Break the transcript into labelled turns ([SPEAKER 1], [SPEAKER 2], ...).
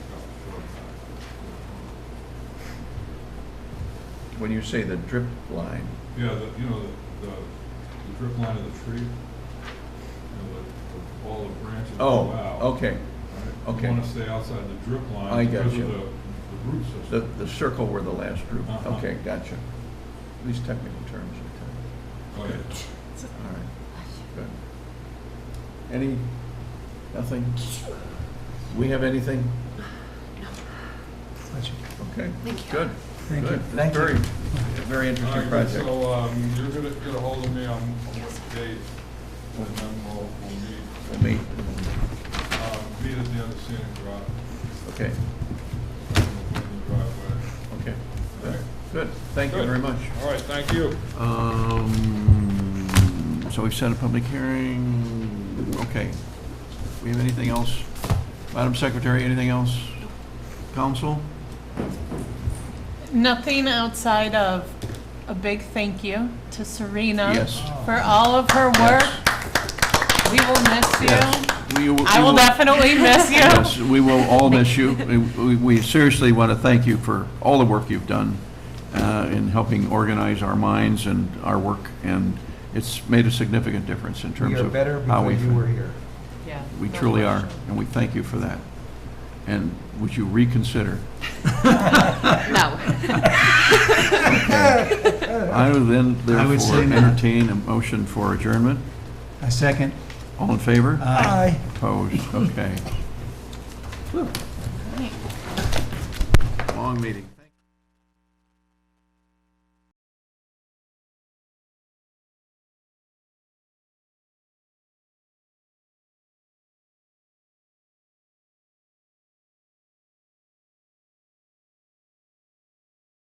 [SPEAKER 1] when you say the drip line,
[SPEAKER 2] Yeah, the, you know, the, the the drip line of the tree, you know, the, the- all the branches
[SPEAKER 1] oh,
[SPEAKER 2] go out.
[SPEAKER 1] okay,
[SPEAKER 2] right?
[SPEAKER 1] okay.
[SPEAKER 2] You wanna stay outside the drip line.
[SPEAKER 1] I
[SPEAKER 2] because of
[SPEAKER 1] gotcha.
[SPEAKER 2] the- The root system.
[SPEAKER 1] the, the circle were the last group,
[SPEAKER 2] Uh-huh.
[SPEAKER 1] okay, gotcha. These technical terms are
[SPEAKER 2] Oh, yeah.
[SPEAKER 1] tough, all right, good. Any, nothing? We have anything? Okay,
[SPEAKER 3] Thank you.
[SPEAKER 1] good.
[SPEAKER 4] Thank you.
[SPEAKER 1] good.
[SPEAKER 4] Thank you.
[SPEAKER 1] Very, very
[SPEAKER 2] All
[SPEAKER 1] interesting
[SPEAKER 2] right,
[SPEAKER 1] project.
[SPEAKER 2] So, um, you're gonna get ahold of me on, on what date, and then we'll, we'll meet,
[SPEAKER 1] We'll meet,
[SPEAKER 2] um, meet at the end of Scenic Drive,
[SPEAKER 1] okay,
[SPEAKER 2] and we'll go in the driveway.
[SPEAKER 1] okay,
[SPEAKER 2] All
[SPEAKER 1] good,
[SPEAKER 2] right.
[SPEAKER 1] good, thank you
[SPEAKER 2] Good.
[SPEAKER 1] very much.
[SPEAKER 2] All right, thank you.
[SPEAKER 1] Um, so we've set a public hearing, okay. We have anything else? Madam Secretary, anything else? Council?
[SPEAKER 3] Nothing outside of a big thank you to Serena.
[SPEAKER 1] Yes.
[SPEAKER 3] For all of her work. We will miss you.
[SPEAKER 1] Yes. We
[SPEAKER 3] I will definitely miss
[SPEAKER 1] Yes,
[SPEAKER 3] you.
[SPEAKER 1] we will all miss you. We- We we seriously want to thank you for all the work you've done uh, in helping organize our minds and our work, and it's made a significant difference in terms
[SPEAKER 4] We are
[SPEAKER 1] of
[SPEAKER 4] better
[SPEAKER 1] how we...
[SPEAKER 4] because you were here.
[SPEAKER 3] Yeah.
[SPEAKER 1] We
[SPEAKER 3] no
[SPEAKER 1] truly are,
[SPEAKER 3] question.
[SPEAKER 1] and we thank you for that. And would you reconsider?
[SPEAKER 3] No.
[SPEAKER 1] I would then
[SPEAKER 4] I would
[SPEAKER 1] therefore
[SPEAKER 4] say no.
[SPEAKER 1] entertain a motion for adjournment.
[SPEAKER 4] A second.
[SPEAKER 1] All in favor?
[SPEAKER 4] Aye.
[SPEAKER 1] Opposed? Okay. Long meeting.